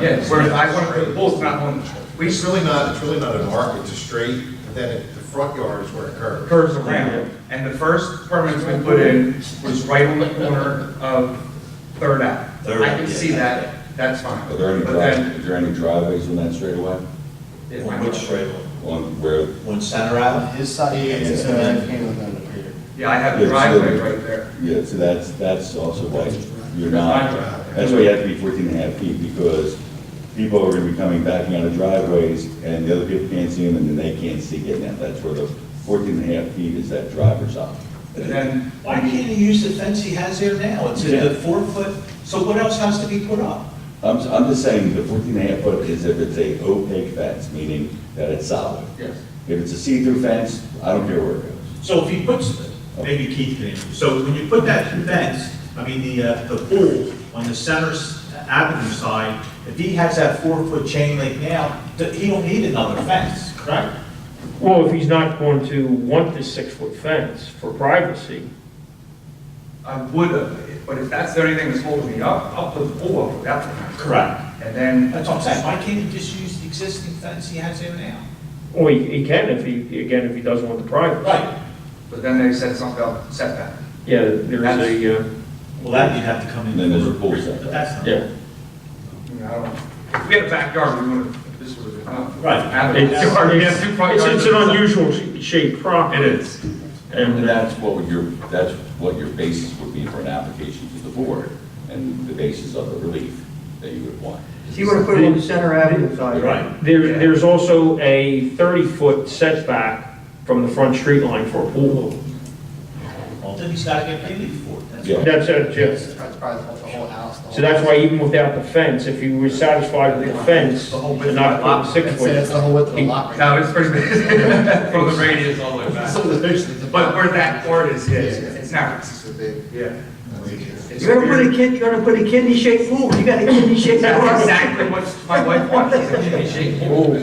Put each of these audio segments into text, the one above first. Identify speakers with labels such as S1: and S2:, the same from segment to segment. S1: Yes, whereas I want to put the Bulls not on the
S2: It's really not, it's really not an arc, it's a straight, and then it- the front yard is where it curves.
S1: curves around. And the first permit that's been put in was right on the corner of Third Ave.
S3: Third,
S1: I can see
S3: yeah.
S1: that, that's fine.
S4: Are there any,
S1: But
S4: dri-
S1: then,
S4: is there any driveways in that straightaway?
S1: it
S3: On
S1: might-
S3: which straightaway?
S4: On where,
S3: On Center Ave?
S5: His side,
S3: Yeah,
S5: it's,
S3: and
S5: uh,
S3: then-
S5: came with Peter.
S1: yeah, I have the
S4: Yeah,
S1: driveway
S4: so-
S1: right there.
S4: yeah, so that's, that's also why you're not, that's why you have to be 14 and a half feet, because people are gonna be coming backing out of driveways, and the other people can't see them, and then they can't see getting out, that's where the 14 and a half feet is that driver's eye.
S1: And then,
S3: Why can't he use the fence he has there now? It's a
S4: Yeah.
S3: four foot, so what else has to be put up?
S4: I'm, I'm just saying, the 14 and a half foot is if it's a opaque fence, meaning that it's solid.
S1: yes.
S4: If it's a see-through fence, I don't care where it goes.
S6: So if he puts, maybe Keith can, so when you put that fence, I mean, the, uh, the pool on the center s- avenue side, if he has that four-foot chain link now, th- he don't need another fence, correct?
S7: Well, if he's not going to want this six-foot fence for privacy,
S1: I would have, but if that's the only thing that's holding me up, I'll put the pool up without the
S6: Correct.
S1: And then,
S6: That's what I'm saying, why can't he just use the existing fence he has there now?
S7: well, he he can if he, again, if he doesn't want the privacy.
S6: Right.
S1: but then they said something about setback.
S7: Yeah, there is a, uh,
S6: Well, that you'd have to come in.
S4: Then there's a pool
S6: But
S4: setback.
S6: that's not-
S7: yeah,
S1: You know, I don't, if we had a backyard, we would have, this would have been enough.
S6: Right.
S1: Have a
S7: It's-
S1: backyard, we have two front
S7: It's,
S1: yards.
S7: it's an unusual sh- shaped property.
S1: It is.
S4: And
S7: And, uh,
S4: that's what would your, that's what your basis would be for an application to the board, and the basis of the relief that you would want.
S8: So you want to put it on the center avenue side?
S6: Right.
S7: there, there's also a thirty-foot setback from the front street line for a pool.
S6: Well, then he's gotta get paid for it. That's-
S4: Yeah.
S7: That's it, yes.
S5: It's probably the whole house. the whole-
S7: So that's why even without the fence, if he was satisfied with the fence, and not put
S5: I'd say that's
S7: six-foot.
S5: the whole width of the lot. right
S1: No, it's pretty big, from the radius all the way
S5: now.
S1: back.
S5: So there's- it's a-
S1: But where that part is, yes,
S5: Yeah.
S1: it's not,
S5: It's a big.
S1: yeah. It's
S8: You're gonna put a
S1: weird.
S8: kid, you're gonna put a kidney shaped pool, you got a kidney shaped pool.
S1: That's exactly what my wife wants, is a kidney shaped pool.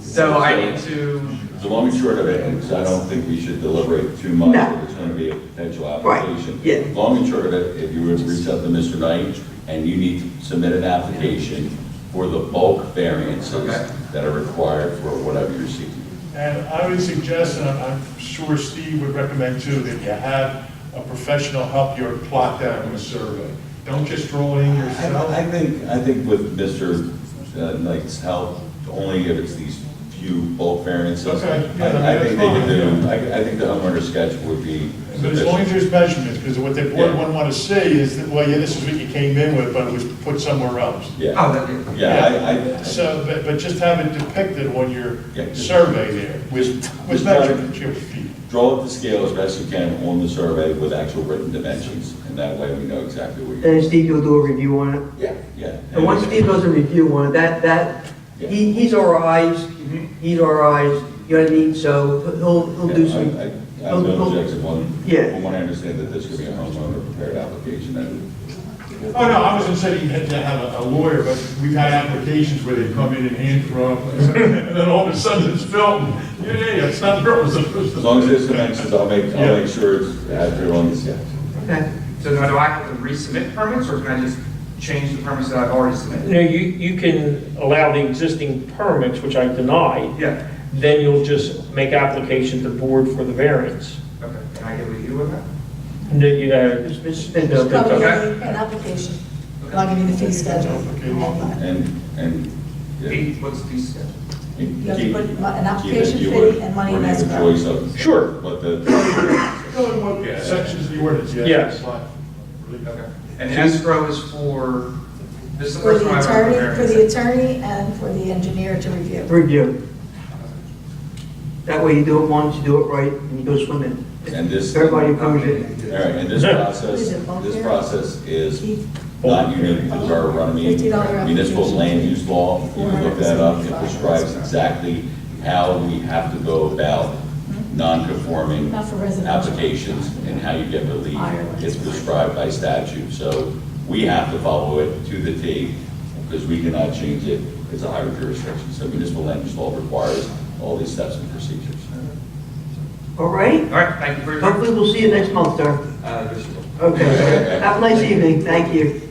S1: So I need to,
S4: So long and short of it, because I don't think we should deliberate too much,
S8: No.
S4: if it's going to be a potential
S8: Right,
S4: application.
S8: yeah.
S4: Long and short of it, if you would reach out to Mr. Knight, and you need to submit an application for the bulk variances
S1: Okay.
S4: that are required for whatever you're seeking.
S9: And I would suggest, and I'm- I'm sure Steve would recommend too, that you have a professional help you plot that on a survey. Don't just draw it in yourself.
S4: I I think, I think with Mr. Knight's help, only if it's these few bulk variances.
S9: Okay, yeah,
S4: I I think they could
S9: that's
S4: do, I I think the homeowner sketch would be
S9: But as long
S4: sufficient.
S9: as there's measurements, because what the board
S4: Yeah.
S9: wouldn't want to see is that, well, yeah, this is what you came in with, but it was put somewhere else.
S4: Yeah,
S1: oh, that,
S4: yeah, I, I.
S9: So, but, but just have it depicted on your
S4: Yeah, just-
S9: survey there with, with
S4: Just try to-
S9: measurements, your feet.
S4: Draw up the scale as best you can on the survey with actual written dimensions, and that way we know exactly what you're.
S8: And Steve, you'll do a review on it.
S4: Yeah, yeah.
S8: And once Steve does a review on it, that, that, he, he's our eyes,
S5: Mm-hmm.
S8: he's our eyes, you know what I mean? So he'll, he'll do
S4: I-
S8: some,
S4: I- I have no
S8: he'll-
S4: objection, one,
S8: Yeah.
S4: one, I understand that this could be a homeowner prepared application, and.
S9: Oh, no, I wasn't saying you had to have a- a lawyer, but we've had applications where they come in and hand draw, and then all of a sudden it's filmed. Yeah, yeah, yeah, it's not purpose.
S4: As long as there's dimensions, I'll make, I'll
S9: Yeah.
S4: make sure it's accurate on the sketch.
S8: okay.
S1: so now do I have to resubmit permits, or can I just change the permits that I've already submitted?
S7: No, you, you can allow the existing permits, which I denied,
S1: Yeah,
S7: then you'll just make application to the board for the variance.
S1: okay, can I get with you on that?
S7: No, you, uh,
S8: Mr. Spindo.
S7: Okay.
S10: Probably an application, not giving the fee schedule and uh, all that.
S4: And, and. yeah.
S1: Eight, what's the schedule?
S10: You have to put mo- an
S4: Keep it,
S10: application
S4: you
S10: fee
S4: would-
S10: and money
S4: would make a
S10: escrow.
S4: choice of-
S7: Sure.
S4: What the,
S9: Sections of the ordinance, yeah.
S7: Yes.
S1: Okay, and escrow is for, this is the
S10: For
S1: first one
S10: the
S1: I've ever
S10: attorney,
S1: prepared.
S10: for the attorney and for the engineer to review.
S8: Review. That way you do it once, you do it right, and you go swimming.
S4: and this, all right,
S8: Everybody approves it.
S4: and this process, this process is
S10: Keith,
S4: not unique to Borough Runaby.
S10: $50
S4: Municipal land use law, if you look that up, it
S10: $475.
S4: prescribes exactly how we have to go about
S10: Hmm?
S4: non-conforming
S10: Not for residential.
S4: applications and how you get relief.
S10: Ireland.
S4: It's prescribed by statute, so we have to follow it to the T because we cannot change it. It's a higher jurisdiction, so municipal land use law requires all these steps and procedures.
S8: All right?
S1: All right, thank you for your.
S8: Hopefully we'll see you next month, sir.
S1: Uh, this is-
S8: Okay. Have a nice evening. Thank you.